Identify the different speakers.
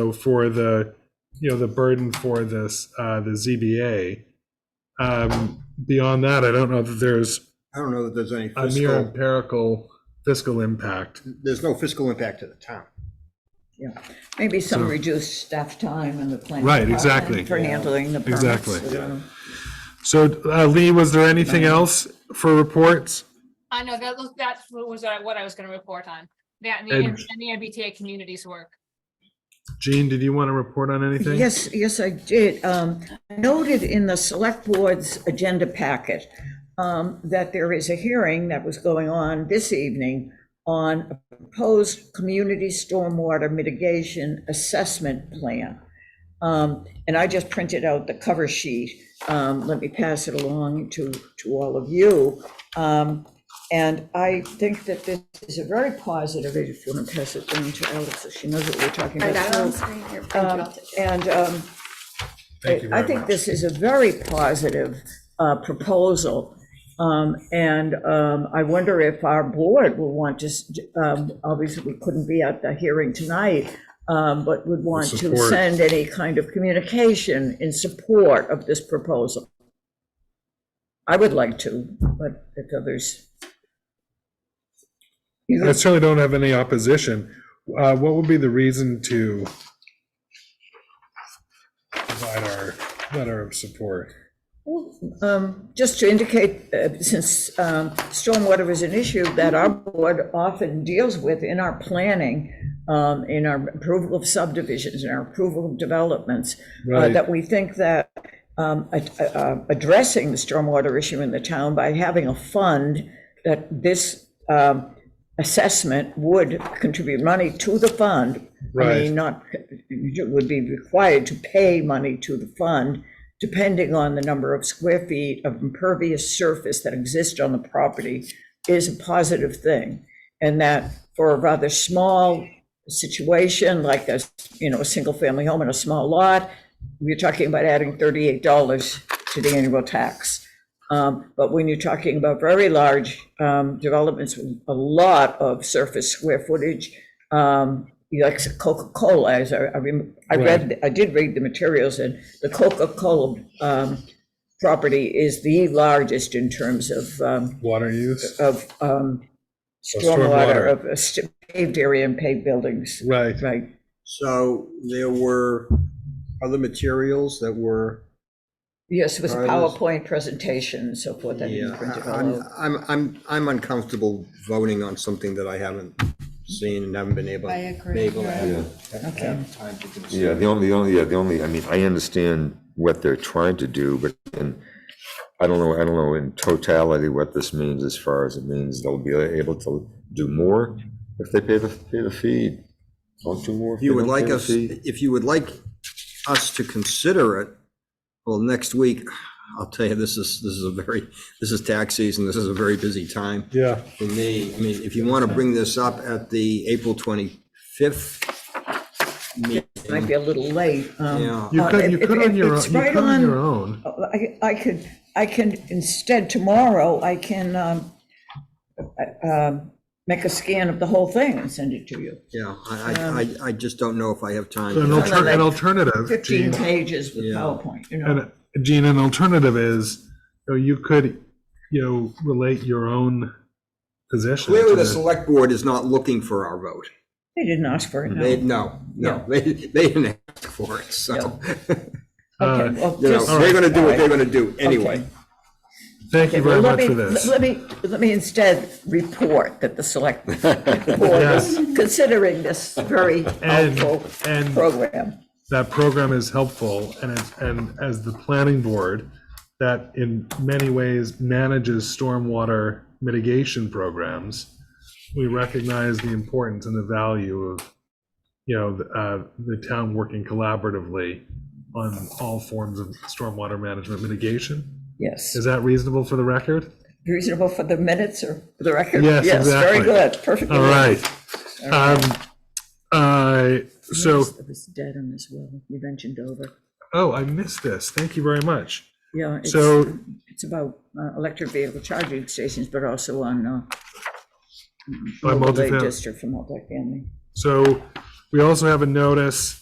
Speaker 1: know, for the, you know, the burden for this, uh, the ZBA. Um, beyond that, I don't know that there's
Speaker 2: I don't know that there's any
Speaker 1: a mere
Speaker 2: fiscal,
Speaker 1: empirical fiscal impact.
Speaker 2: there's no fiscal impact to the town.
Speaker 3: Yeah, maybe some
Speaker 1: So-
Speaker 3: reduced staff time in the planning.
Speaker 1: Right,
Speaker 3: department
Speaker 1: exactly.
Speaker 3: For handling the permits.
Speaker 1: Exactly. So, uh, Lee, was there anything else for reports?
Speaker 4: I know that was, that was uh, what I was gonna report on. That and the,
Speaker 1: And-
Speaker 4: and the MBTA communities work.
Speaker 1: Jean, did you want to report on anything?
Speaker 3: Yes, yes, I did. Um, I Noted in the select board's agenda packet um, that there is a hearing that was going on this evening on a proposed community stormwater mitigation assessment plan. Um, And I just printed out the cover sheet. Um, Let me pass it along to, to all of you. Um, And I think that this is a very positive, if you want to pass it down to Alex, so she knows what we're talking
Speaker 5: I
Speaker 3: about.
Speaker 5: got it on the screen here. Print it
Speaker 3: Um,
Speaker 5: out.
Speaker 3: And um,
Speaker 1: Thank you
Speaker 3: I
Speaker 1: very
Speaker 3: think
Speaker 1: much.
Speaker 3: this is a very positive uh, proposal. Um, And um, I wonder if our board will want to, s- um, obviously, we couldn't be at the hearing tonight, um, but would want to
Speaker 1: Support.
Speaker 3: send any kind of communication in support of this proposal. I would like to, but if others. You-
Speaker 1: I certainly don't have any opposition. Uh, what would be the reason to provide our letter of support?
Speaker 3: Um, Just to indicate, uh, since um, stormwater is an issue that our board often deals with in our planning, um, in our approval of subdivisions, in our approval of developments, uh,
Speaker 1: Right.
Speaker 3: that we think that um, ad- uh, uh, addressing the stormwater issue in the town by having a fund, that this um, assessment would contribute money to the fund. I
Speaker 1: Right.
Speaker 3: mean, not, you would be required to pay money to the fund, depending on the number of square feet of impervious surface that exists on the property, is a positive thing. And that for a rather small situation, like a, you know, a single-family home in a small lot, you're talking about adding thirty-eight dollars to the annual tax. Um, But when you're talking about very large um, developments with a lot of surface square footage, um, you like Coca-Cola, as I, I rem- I read, I did read the materials, and the Coca-Cola um, property is the largest in terms of, um,
Speaker 1: Water use?
Speaker 3: of um,
Speaker 1: stormwater.
Speaker 3: stormwater, of uh, st- paved area and paved buildings,
Speaker 1: Right.
Speaker 3: right?
Speaker 2: So there were other materials that were,
Speaker 3: Yes, it was a
Speaker 2: Are those-
Speaker 3: PowerPoint presentation and so forth. I
Speaker 2: yeah,
Speaker 3: didn't print it
Speaker 2: I-
Speaker 3: all
Speaker 2: I'm,
Speaker 3: out.
Speaker 2: I'm, I'm, I'm uncomfortable voting on something that I haven't seen and haven't been able.
Speaker 5: I agree,
Speaker 2: been able to
Speaker 5: you're
Speaker 2: have-
Speaker 6: Yeah,
Speaker 2: have- have time to consider.
Speaker 6: yeah, the only, the only, yeah, the only, I mean, I understand what they're trying to do, but then, I don't know, I don't know in totality what this means as far as it means they'll be able to do more if they pay the, pay the fee. Don't do more. if
Speaker 2: If you
Speaker 6: they
Speaker 2: would
Speaker 6: don't pay
Speaker 2: like
Speaker 6: the
Speaker 2: us,
Speaker 6: fee.
Speaker 2: if you would like us to consider it, well, next week, I'll tell you, this is, this is a very, this is tax season, this is a very busy time.
Speaker 1: Yeah.
Speaker 2: for me, I mean, if you want to bring this up at the April 25th
Speaker 3: Might be a little late. um,
Speaker 2: Yeah.
Speaker 1: You
Speaker 3: uh,
Speaker 1: could, you
Speaker 3: if-
Speaker 1: could
Speaker 3: if-
Speaker 1: on your, own.
Speaker 3: it's
Speaker 1: you
Speaker 3: right
Speaker 1: could on
Speaker 3: on- uh,
Speaker 1: your own.
Speaker 3: I, I could, I can, instead tomorrow, I can um, uh, um, make a scan of the whole thing and send it to you.
Speaker 2: yeah, I, I- I, I just don't know if I have time.
Speaker 1: An
Speaker 2: for that.
Speaker 1: alter- an alternative,
Speaker 3: 15
Speaker 1: Jean,
Speaker 3: pages with
Speaker 2: Yeah.
Speaker 3: PowerPoint, you know.
Speaker 1: and, Jean, an alternative is, you know, you could, you know, relate your own position.
Speaker 2: Clearly,
Speaker 1: to
Speaker 2: the
Speaker 1: the-
Speaker 2: select board is not looking for our vote.
Speaker 3: They didn't ask for it, no.
Speaker 2: They, no, no, they, they didn't ask for it, so,
Speaker 1: Uh,
Speaker 3: Okay, well,
Speaker 2: you know,
Speaker 3: just-
Speaker 2: they're going to do what they're
Speaker 3: All right.
Speaker 2: going to do anyway.
Speaker 3: Okay.
Speaker 1: Thank you
Speaker 3: Okay,
Speaker 1: very
Speaker 3: well, let
Speaker 1: much
Speaker 3: me-
Speaker 1: for this.
Speaker 3: Let me, let me instead report that the select board is considering this very
Speaker 1: And-
Speaker 3: helpful
Speaker 1: and-
Speaker 3: program.
Speaker 1: that program is helpful and it's, and as the planning board that in many ways manages stormwater mitigation programs, we recognize the importance and the value of, you know, the, uh, the town working collaboratively on all forms of stormwater management mitigation.
Speaker 3: Yes,
Speaker 1: Is that reasonable for the record?
Speaker 3: reasonable for the minutes or for the record?
Speaker 1: Yes, exactly.
Speaker 3: Yes, very good, perfectly.
Speaker 1: All right. Um, uh, so,
Speaker 3: It was Dedham as well, you mentioned Dover.
Speaker 1: oh, I missed this. Thank you very much.
Speaker 3: Yeah, it's,
Speaker 1: So-
Speaker 3: it's about uh, electric vehicle charging stations, but also on uh,
Speaker 1: By
Speaker 3: overlay
Speaker 1: multifam-
Speaker 3: district for multifamily.
Speaker 1: So we also have a notice